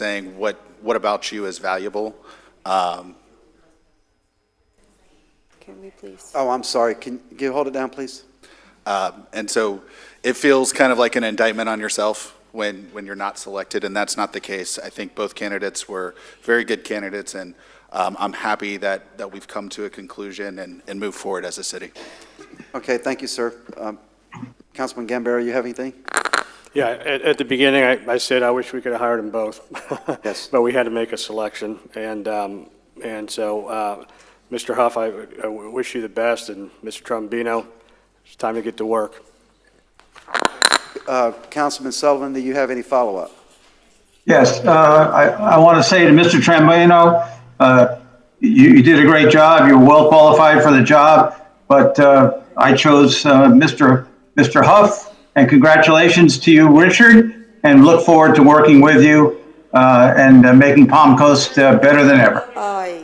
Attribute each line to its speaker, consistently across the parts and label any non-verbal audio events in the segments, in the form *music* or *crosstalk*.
Speaker 1: saying what, what about you is valuable.
Speaker 2: Can we please?
Speaker 3: Oh, I'm sorry. Can you hold it down, please?
Speaker 1: And so it feels kind of like an indictment on yourself when, when you're not selected, and that's not the case. I think both candidates were very good candidates, and um, I'm happy that, that we've come to a conclusion and, and move forward as a city.
Speaker 3: Okay, thank you, sir. Um, Councilman Gambaro, you have anything?
Speaker 4: Yeah, at, at the beginning, I, I said I wish we could have hired them both. *laughs*
Speaker 3: Yes.
Speaker 4: But we had to make a selection, and, um, and so, uh, Mr. Huff, I, I wish you the best, and Mr. Trombino, it's time to get to work.
Speaker 3: Uh, Councilman Sullivan, do you have any follow-up?
Speaker 5: Yes, uh, I, I want to say to Mr. Trambino, uh, you, you did a great job. You're well qualified for the job, but uh, I chose uh, Mr. Mr. Huff, and congratulations to you, Richard, and look forward to working with you uh, and uh, making Palm Coast uh, better than ever.
Speaker 2: Aye.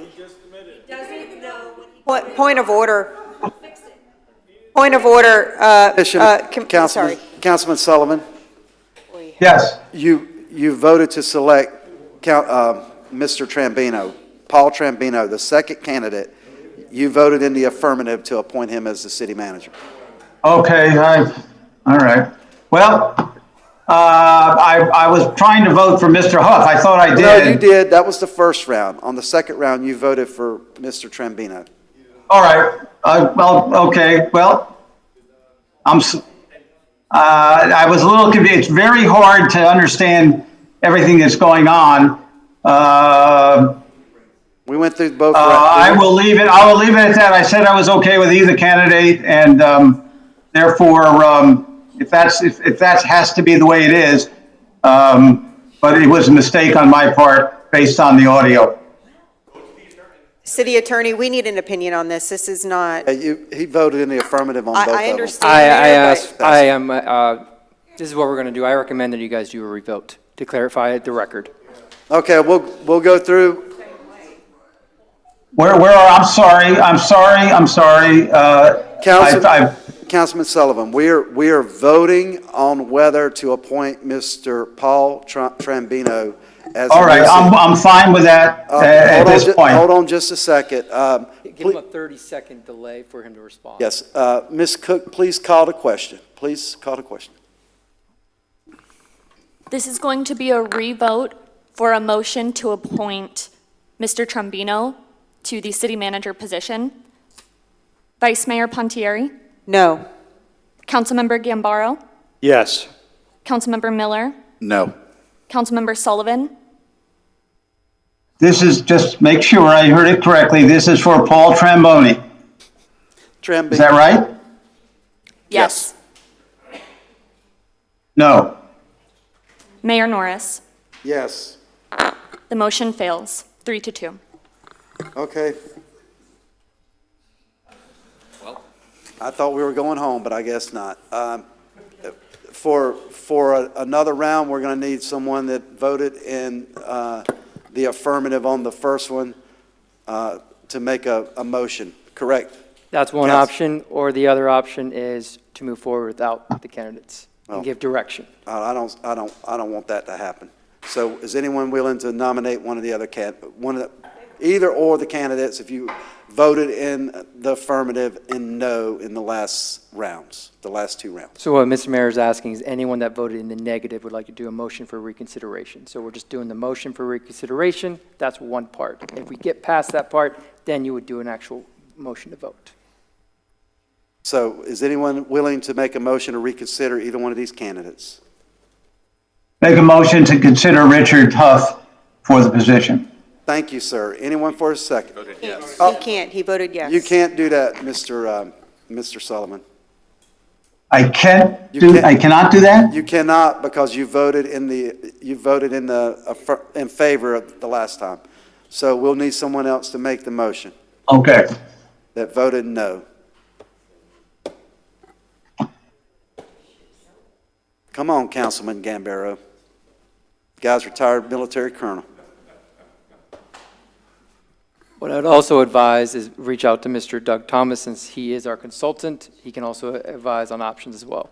Speaker 2: Point, point of order. Point of order, uh, uh, com-
Speaker 3: Councilman,
Speaker 2: sorry.
Speaker 3: Councilman Sullivan,
Speaker 5: Yes,
Speaker 3: you, you voted to select Count, uh, Mr. Trambino, Paul Trambino, the second candidate. You voted in the affirmative to appoint him as the city manager.
Speaker 5: okay, I, all right. Well, uh, I, I was trying to vote for Mr. Huff. I thought I did.
Speaker 3: No, you did. That was the first round. On the second round, you voted for Mr. Trambino.
Speaker 5: All right, uh, well, okay, well, I'm, s- uh, I was a little confused, it's very hard to understand everything that's going on. Uh,
Speaker 3: We went through both.
Speaker 5: uh,
Speaker 3: rounds.
Speaker 5: I will leave it, I will leave it at that, I said I was okay with either candidate, and, um, therefore, um, if that's, if, if that has to be the way it is, um, but it was a mistake on my part, based on the audio.
Speaker 2: City Attorney, we need an opinion on this. This is not,
Speaker 3: Uh, you- He voted in the affirmative on both
Speaker 2: I,
Speaker 3: of them.
Speaker 2: I understand.
Speaker 6: I, I
Speaker 2: Mayor,
Speaker 6: ask,
Speaker 2: but-
Speaker 6: I am, uh, this is what we're going to do. I recommend that you guys do a revote to clarify the record.
Speaker 3: Okay, we'll, we'll go through,
Speaker 5: Where, where, are- I'm sorry, I'm sorry, I'm sorry, uh,
Speaker 3: Council-
Speaker 5: I- I-
Speaker 3: Councilman Sullivan, we are, we are voting on whether to appoint Mr. Paul Tr- Trambino as.
Speaker 5: All right,
Speaker 3: the
Speaker 5: I'm,
Speaker 3: city-
Speaker 5: I'm fine with that
Speaker 3: Uh,
Speaker 5: a- at
Speaker 3: hold on
Speaker 5: this
Speaker 3: ju-
Speaker 5: point.
Speaker 3: Hold on just a second. Um,
Speaker 6: Give him a 30-second delay for him to respond.
Speaker 3: Yes, uh, Ms. Cook, please call the question. Please call the question.
Speaker 7: This is going to be a revote for a motion to appoint Mr. Trombino to the city manager position. Vice Mayor Pontieri,
Speaker 2: No.
Speaker 7: Councilmember Gambaro,
Speaker 4: Yes.
Speaker 7: Councilmember Miller,
Speaker 1: No.
Speaker 7: Councilmember Sullivan,
Speaker 5: This is, just make sure I heard it correctly, this is for Paul Tramboni,
Speaker 3: Trambino.
Speaker 5: is that right?
Speaker 1: Yes.
Speaker 7: yes,
Speaker 5: No.
Speaker 7: Mayor Norris.
Speaker 3: Yes.
Speaker 7: The motion fails, three to two.
Speaker 3: Okay. I thought we were going home, but I guess not. Um, For, for a- another round, we're going to need someone that voted in uh, the affirmative on the first one uh, to make a, a motion, correct?
Speaker 6: That's one
Speaker 3: Yes.
Speaker 6: option, or the other option is to move forward without the candidates
Speaker 3: Oh.
Speaker 6: and give direction.
Speaker 3: I I don't, I don't, I don't want that to happen. So is anyone willing to nominate one of the other can, one of the, either or the candidates if you voted in the affirmative and no in the last rounds, the last two rounds?
Speaker 6: So what Mr. Mayor is asking is anyone that voted in the negative would like to do a motion for reconsideration. So we're just doing the motion for reconsideration, that's one part. If we get past that part, then you would do an actual motion to vote.
Speaker 3: So is anyone willing to make a motion to reconsider either one of these candidates?
Speaker 5: Make a motion to consider Richard Huff for the position.
Speaker 3: Thank you, sir. Anyone for a second?
Speaker 2: He can't. He voted yes.
Speaker 3: Oh. You can't do that, Mr. um, Mr. Sullivan.
Speaker 5: I can't
Speaker 3: You
Speaker 5: do,
Speaker 3: can't-
Speaker 5: I cannot do that?
Speaker 3: You cannot because you voted in the, you voted in the, affir- in favor of the last time. So we'll need someone else to make the motion
Speaker 5: Okay.
Speaker 3: that voted no. Come on, Councilman Gambaro. Guy's retired military colonel.
Speaker 6: What I'd also advise is reach out to Mr. Doug Thomas, since he is our consultant. He can also advise on options as well.